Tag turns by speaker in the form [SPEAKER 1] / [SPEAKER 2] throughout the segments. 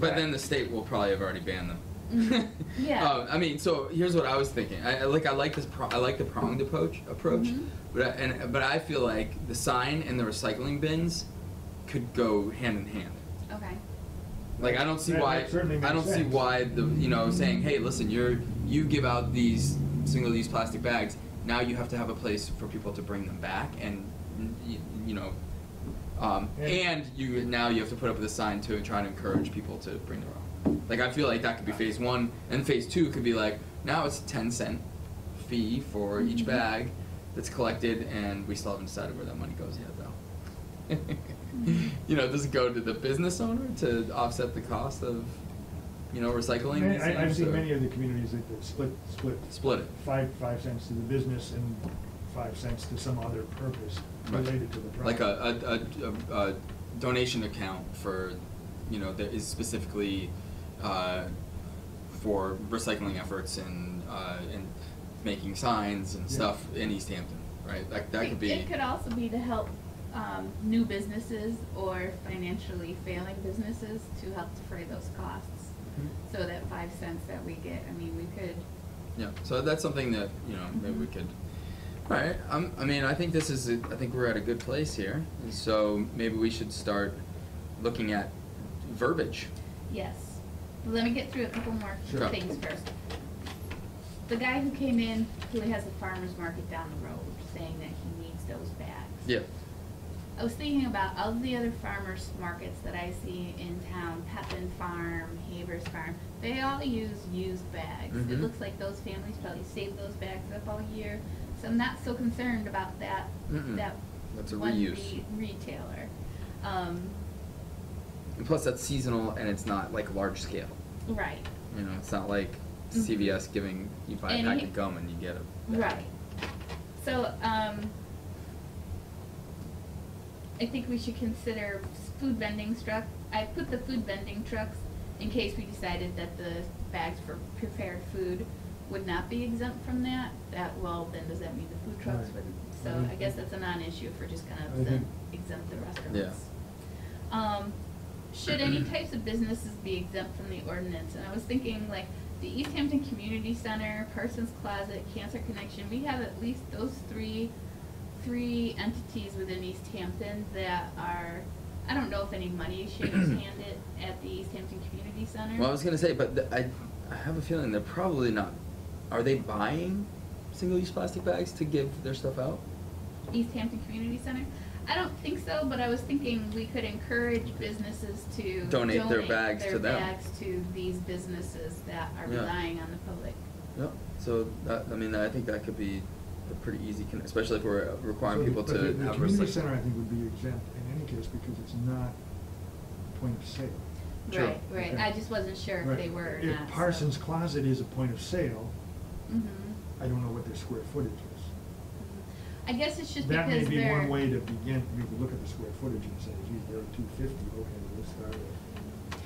[SPEAKER 1] But then the state will probably have already banned
[SPEAKER 2] Mhm.
[SPEAKER 1] them.
[SPEAKER 2] Yeah.
[SPEAKER 1] Um, I mean, so here's what I was thinking. I, I like I like this. Pro- I like the pronged approach. Approach,
[SPEAKER 2] Mhm.
[SPEAKER 1] but I, and but I feel like the sign and the recycling bins could go hand in hand.
[SPEAKER 2] Okay.
[SPEAKER 1] Like I don't see
[SPEAKER 3] That-
[SPEAKER 1] why
[SPEAKER 3] that certainly
[SPEAKER 1] I
[SPEAKER 3] makes
[SPEAKER 1] don't see
[SPEAKER 3] sense.
[SPEAKER 1] why the you know saying hey listen you're you give out these single use plastic bags now you have to have a place for people to bring them back and you, you know um,
[SPEAKER 3] Yeah.
[SPEAKER 1] and you now you have to put up with a sign to try to encourage people to bring their own like I feel like that could be phase one and phase two could be like now it's a ten cent fee for each
[SPEAKER 2] Mhm.
[SPEAKER 3] Mm-hmm.
[SPEAKER 1] bag that's collected and we still haven't decided where that money goes yet though. you know, does it go to the business owner to offset the cost of, you know, recycling?
[SPEAKER 3] Many-
[SPEAKER 1] these
[SPEAKER 3] I, I've
[SPEAKER 1] things,
[SPEAKER 3] seen
[SPEAKER 1] or-
[SPEAKER 3] many of the communities that that split, split
[SPEAKER 1] Split it.
[SPEAKER 3] five, five cents to the business and five cents to some other purpose
[SPEAKER 1] Right.
[SPEAKER 3] related to the
[SPEAKER 1] Like
[SPEAKER 3] product.
[SPEAKER 1] a, a, a, a, a donation account for, you know, that is specifically, uh, for recycling efforts and, uh, and making signs and
[SPEAKER 3] Yeah.
[SPEAKER 1] stuff in East Hampton, right? That, that
[SPEAKER 2] It-
[SPEAKER 1] could be.
[SPEAKER 2] It could also be to help um, new businesses or financially failing businesses to help defray those costs.
[SPEAKER 3] Mhm.
[SPEAKER 2] So that five cents that we get, I mean, we could,
[SPEAKER 1] Yeah, so that's something that, you know, maybe
[SPEAKER 2] Mm-hmm.
[SPEAKER 1] we could, alright, I'm, I mean, I think this is, a- I think we're at a good place here, and so maybe we should start looking at verbiage.
[SPEAKER 2] yes. Let me get through a couple more
[SPEAKER 1] Sure.
[SPEAKER 2] things first. The guy who came in, who has a farmer's market down the road, saying that he needs those bags.
[SPEAKER 1] Yeah,
[SPEAKER 2] I was thinking about all the other farmers markets that I see in town, Pepin Farm, Havers Farm, they all use used bags. It
[SPEAKER 1] Mhm.
[SPEAKER 2] looks like those families probably save those bags up all year, so I'm not so concerned about that,
[SPEAKER 1] Mm-mm.
[SPEAKER 2] that
[SPEAKER 1] That's a
[SPEAKER 2] one
[SPEAKER 1] reuse.
[SPEAKER 2] re- retailer. Um,
[SPEAKER 1] and plus that's seasonal and it's not like large scale,
[SPEAKER 2] right,
[SPEAKER 1] you know, it's not like CVS giving, you buy a
[SPEAKER 2] Mm-hmm. And
[SPEAKER 1] pack
[SPEAKER 2] he-
[SPEAKER 1] of gum and you get a. bag.
[SPEAKER 2] right. So, um, I think we should consider s- food vending truck. I put the food vending trucks in case we decided that the bags for prepared food would not be exempt from that. That, well, then does that mean the food trucks
[SPEAKER 3] Right. Mm-hmm.
[SPEAKER 2] would, so I guess that's a non-issue for just kind
[SPEAKER 3] I
[SPEAKER 2] of the
[SPEAKER 3] think-
[SPEAKER 2] exempt the restaurants.
[SPEAKER 1] Yeah.
[SPEAKER 2] Um, should any types of businesses be exempt from the ordinance? And I was thinking like the East Hampton Community Center, Parsons Closet, Cancer Connection, we have at least those three three entities within East Hampton that are, I don't know if any money is shaking handed at the East Hampton Community Center.
[SPEAKER 1] Well, I was gonna say, but th- I, I have a feeling they're probably not, are they buying single-use plastic bags to give their stuff out?
[SPEAKER 2] East Hampton Community Center? I don't think so, but I was thinking we could encourage businesses to
[SPEAKER 1] Donate their
[SPEAKER 2] donate
[SPEAKER 1] bags
[SPEAKER 2] their
[SPEAKER 1] to them.
[SPEAKER 2] bags to these businesses that are
[SPEAKER 1] Yeah.
[SPEAKER 2] relying on the public.
[SPEAKER 1] Yep. So that, I mean, I think that could be a pretty easy, con- especially if we're requiring
[SPEAKER 3] So the-
[SPEAKER 1] people
[SPEAKER 3] but
[SPEAKER 1] to
[SPEAKER 3] the-
[SPEAKER 1] have
[SPEAKER 3] The community
[SPEAKER 1] recycling.
[SPEAKER 3] center, I think, would be exempt in any case because it's not point of sale.
[SPEAKER 1] True.
[SPEAKER 2] Right, right.
[SPEAKER 3] Okay.
[SPEAKER 2] I just wasn't sure if
[SPEAKER 3] Right.
[SPEAKER 2] they were or
[SPEAKER 3] If
[SPEAKER 2] not.
[SPEAKER 3] Parsons Closet is a point of sale,
[SPEAKER 2] hmm
[SPEAKER 3] I don't know what their square footage is.
[SPEAKER 2] I guess it's just
[SPEAKER 3] That may
[SPEAKER 2] because
[SPEAKER 3] be
[SPEAKER 2] they're.
[SPEAKER 3] one way to begin, you could look at the square footage and say, geez, they're two fifty, okay, let's start at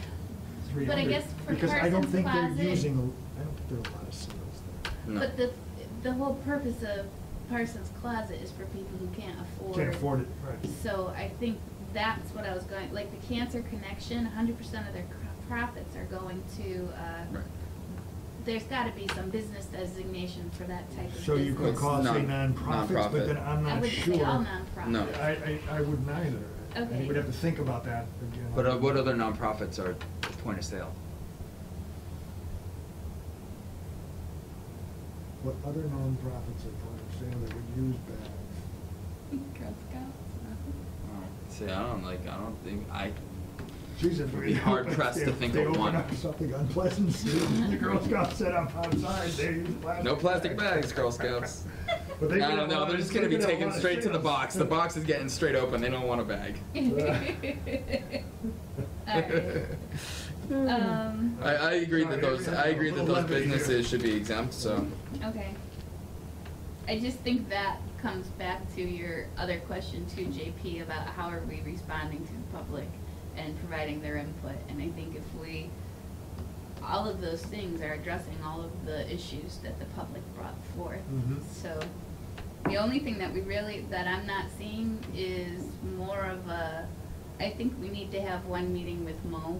[SPEAKER 3] three hundred.
[SPEAKER 2] But I guess for
[SPEAKER 3] Because I don't
[SPEAKER 2] Parsons
[SPEAKER 3] think
[SPEAKER 2] Closet-
[SPEAKER 3] they're using, a- I don't think there are a lot of sales there.
[SPEAKER 1] No.
[SPEAKER 2] But the the whole purpose of Parsons Closet is for people who can't afford.
[SPEAKER 3] Can't afford it, right.
[SPEAKER 2] So I think that's what I was going. Like the Cancer Connection, 100% of their cr- profits are going to. Uh,
[SPEAKER 1] Right.
[SPEAKER 2] There's got to be some business designation for that type of
[SPEAKER 3] So you could
[SPEAKER 2] business.
[SPEAKER 3] call it, say,
[SPEAKER 1] Non-
[SPEAKER 3] nonprofits,
[SPEAKER 1] nonprofit.
[SPEAKER 3] but then I'm
[SPEAKER 2] I
[SPEAKER 3] not
[SPEAKER 2] would
[SPEAKER 3] sure.
[SPEAKER 2] say all nonprofits.
[SPEAKER 1] No.
[SPEAKER 3] I, I, I wouldn't either. I think
[SPEAKER 2] Okay.
[SPEAKER 3] We'd have to think about that again.
[SPEAKER 1] But uh, what other nonprofits are point of sale?
[SPEAKER 3] What other nonprofits are point of sale that would use bags?
[SPEAKER 2] Girl Scouts.
[SPEAKER 1] See, I don't like. I don't think I.
[SPEAKER 3] Geez,
[SPEAKER 1] It'd
[SPEAKER 3] if
[SPEAKER 1] be
[SPEAKER 3] we.
[SPEAKER 1] hard
[SPEAKER 3] if
[SPEAKER 1] pressed to
[SPEAKER 3] they-
[SPEAKER 1] think
[SPEAKER 3] they
[SPEAKER 1] of
[SPEAKER 3] open
[SPEAKER 1] one.
[SPEAKER 3] up Something unpleasant, soon, the Girl Scouts set up outside, they use plastic.
[SPEAKER 1] No plastic bags, Girl Scouts.
[SPEAKER 3] But they
[SPEAKER 1] I
[SPEAKER 3] get a
[SPEAKER 1] don't know.
[SPEAKER 3] lot
[SPEAKER 1] They're
[SPEAKER 3] of-
[SPEAKER 1] just gonna be
[SPEAKER 3] they get a
[SPEAKER 1] taken
[SPEAKER 3] lot of
[SPEAKER 1] straight to the
[SPEAKER 3] sales.
[SPEAKER 1] box. The box is getting straight open. They don't want a bag.
[SPEAKER 2] Alright. Um,
[SPEAKER 1] I, I agree that those. I agree that those
[SPEAKER 3] Little levity here.
[SPEAKER 1] businesses should be exempt. So.
[SPEAKER 2] okay. I just think that comes back to your other question too, JP, about how are we responding to the public and providing their input, and I think if we, all of those things are addressing all of the issues that the public brought forth.
[SPEAKER 3] Mhm.
[SPEAKER 2] So, the only thing that we really, that I'm not seeing is more of a, I think we need to have one meeting with Mo